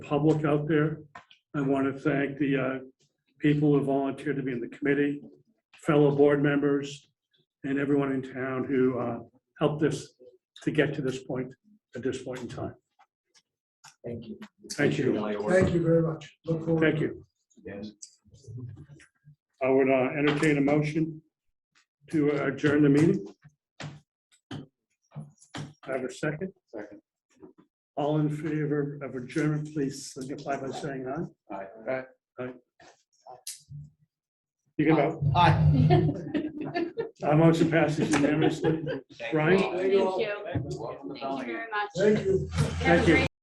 public out there. I want to thank the uh, people who volunteered to be in the committee, fellow board members, and everyone in town who uh, helped us to get to this point, at this point in time. Thank you. Thank Appreciate you. all your work. Thank you very much. Look forward. Thank you. Yes. I would uh, entertain a motion to adjourn the meeting. I Have a second? Second. All in favor of adjournment, please signify by saying aye. Aye. You can vote. Our motion passes unanimously. Thank you Right? all. Thank you. Welcome to Thank Bellingham. you very much. Thank you. Have a Thank you. great